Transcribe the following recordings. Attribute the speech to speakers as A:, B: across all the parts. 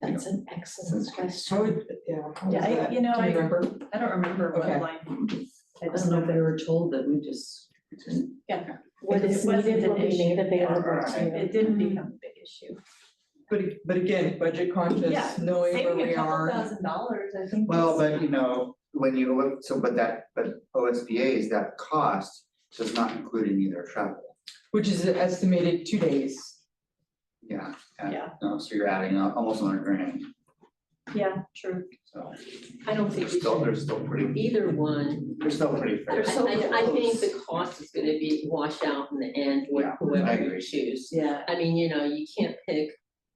A: That's an excellent
B: I
A: question.
B: would, yeah. how was
C: Yeah, I-
B: that?
C: you know,
B: Do
C: I-
B: remember?
C: I don't remember
B: Okay.
C: what line. I
D: I
C: just
D: don't know if
C: know,
D: they were told that we just.
C: yeah,
A: What
C: It
A: is
C: wasn't
A: needed
C: an
A: will be
C: issue.
A: made available to you.
C: it didn't become a big issue.
B: But, a- but again, budget
C: Yeah,
B: conscious, knowing where we are.
C: thousand dollars, I think.
E: Well,
C: is-
E: but you know, when you look, so but that, but OSBA's, that cost does not include any of their travel.
B: Which is estimated two days.
E: Yeah, and-
C: Yeah.
E: no, so you're adding up almost on a grand,
C: Yeah, true.
E: so
D: I
E: they're
D: don't think we
E: still,
D: should,
E: they're still pretty,
D: either one,
E: they're still pretty
D: I,
E: fair.
C: They're so
D: I, I think
C: close.
D: the cost is gonna be wash out in the end, with
E: Yeah, I
D: whoever
E: agree.
D: you choose.
C: Yeah.
D: I mean, you know, you can't pick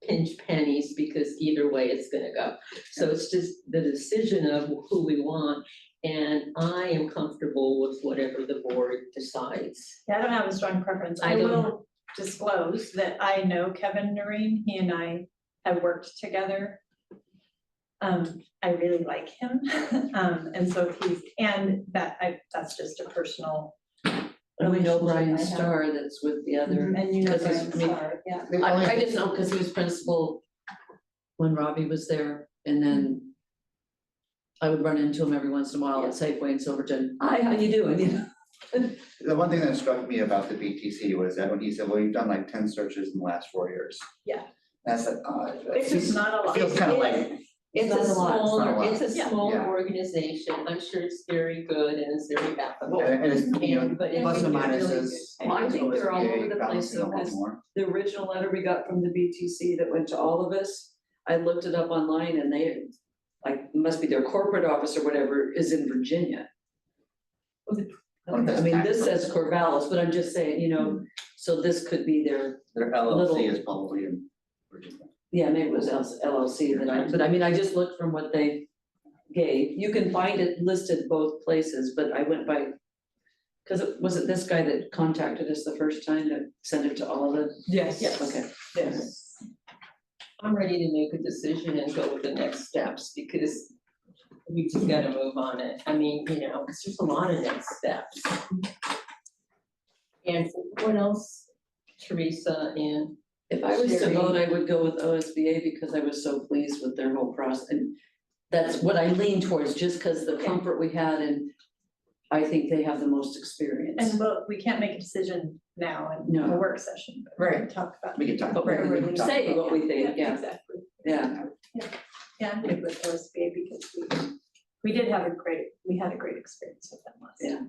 D: pinch pennies because either way it's gonna go. So it's just the decision of who we want. And I am comfortable with whatever the board decides.
C: Yeah, I don't have a strong preference. I
D: I don't.
C: will disclose that I know Kevin Noreen. He and I have worked together. Um, I really like him. Um, and so he's, and that I, that's just a personal.
D: And we know
C: relationship I
D: Brian
C: have.
D: Starr that's with the other.
C: And you know
D: Because he's-
C: Brian
D: I mean-
C: Starr, yeah.
E: The
D: I,
E: only-
D: I just know because he was principal when Robbie was there and then I would run into him every once in a while at Safeway in Silverton. Hi, how you doing? You know?
E: The one thing that struck me about the BTC was that when he said, well, you've done like ten searches in the last four years.
C: Yeah.
E: That's like, uh,
C: It's just not a
E: it
C: lot.
E: feels kind of like,
D: It's
E: not a lot, it's not
D: a
E: a
D: smaller,
E: lot.
D: it's a
C: Yeah.
D: smaller
E: Yeah.
D: organization. I'm sure it's very good and it's very ethical.
E: and it's, you know,
D: And- but I
E: plus
D: think
E: and
D: they're really
E: minuses.
D: good. Well, I think they're all
E: OSBA
D: over the place
E: balancing a
D: though,
E: lot
D: 'cause
E: more.
D: the original letter we got from the BTC that went to all of us, I looked it up online and they, like, must be their corporate office or whatever is in Virginia.
E: Oh, that's
D: I mean, this
E: accurate.
D: says Corvallis, but I'm just saying, you know, so this could be their,
E: Their
D: Little-
E: LLC is probably in Virginia.
D: yeah, maybe it was LLC that I, but I mean, I just looked from what they gave. You can find it listed both places, but I went by, because it, was it this guy that contacted us the first time that sent it to all of us?
B: Yes.
D: Okay.
B: Yes.
D: I'm ready to make a decision and go with the next steps because we just gotta move on it. I mean, you know, it's just a lot of next steps. And what else, Teresa and? If I was to
C: Sherry?
D: vote, I would go with OSBA because I was so pleased with their whole process. And that's what I lean towards, just because the comfort we had and I think they have the most experience.
C: And we'll, we can't make a decision now in
D: No.
C: a work session. but we can Talk about.
E: We can talk.
D: But
E: we
D: we're
E: can
C: really
E: talk
D: Say
E: about-
D: what we think, yeah,
C: Exactly.
D: yeah.
C: Yeah, I'm good with OSBA because we, we did have a great, we had a great experience with them last year.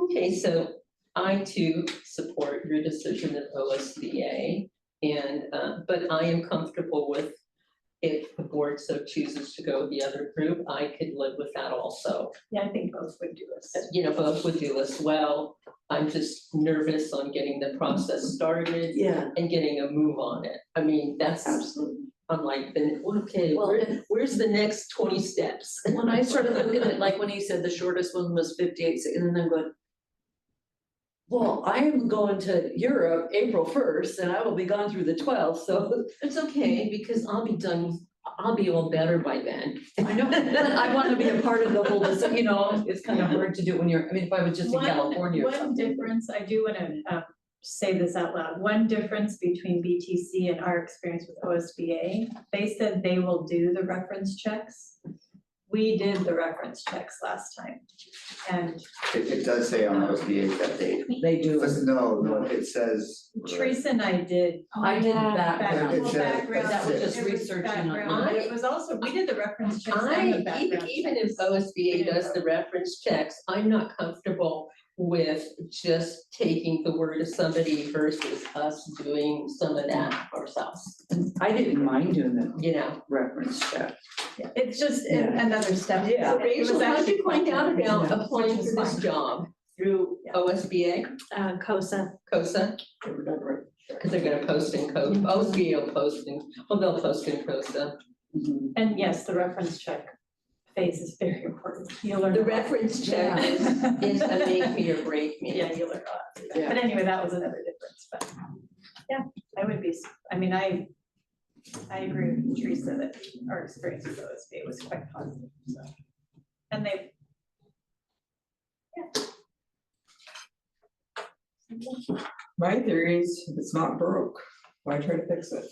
D: Yeah. Okay, so I too support your decision of OSBA. And, uh, but I am comfortable with if the board so chooses to go with the other group, I could live with that also.
C: Yeah, I think both would do us.
D: You know, both would do as well. I'm just nervous on getting the process started.
F: Yeah.
D: And getting a move on it. I mean, that's,
F: Absolutely.
D: I'm like, then, okay, where, where's the next twenty steps?
F: When I started looking at, like, when he said the shortest one was fifty-eight, se- and then I'm going. Well, I am going to Europe April first, and I will be gone through the twelfth, so
D: It's okay, because I'll be done, I'll be all better by then.
F: I know, but I want to be a part of the whole, so, you know, it's kind of hard to do when you're, I mean, if I was just in
C: One-
F: California or
C: One
F: something.
C: difference, I do wanna um say this out loud, one difference between BTC and our experience with OSBA, they said they will do the reference checks. We did the reference checks last time, and
E: It, it does say on OSBA that they,
F: They do,
E: listen, no, no, it says.
C: Teresa and I did
D: Oh,
F: I did
E: Back-
F: that,
C: background,
E: it's a-
C: background,
E: that was
F: just
C: it was
F: researching on-
C: background, it was also, we did the reference checks and the
D: I, even,
C: background.
D: even if OSBA does the reference checks, I'm not comfortable with just taking the word of somebody versus us doing some of that ourselves,
F: I didn't mind doing the
D: you know?
F: reference check.
C: Yeah, It's just an- another step.
F: Yeah.
C: It was
D: Rachel, how did
C: actually
D: you find
C: quite-
D: out about
F: Yeah.
D: applying for this job? Through
C: Yeah.
D: OSBA,
C: Uh, COSA,
D: COSA? Because they're gonna post in COSA, OSBA will post in, well, they'll post in COSA.
F: Mhm.
C: and yes, the reference check phase is very important, you learn.
D: The
C: a lot.
D: reference check is, is a make me or break me.
C: Yeah, you learn a lot. through that.
F: Yeah.
C: But anyway, that was another difference, but um, yeah, I would be, s- I mean, I, I agree with Teresa that our experience with OSBA was quite positive, so. And they.
B: My theory is if it's not broke, why try to fix it?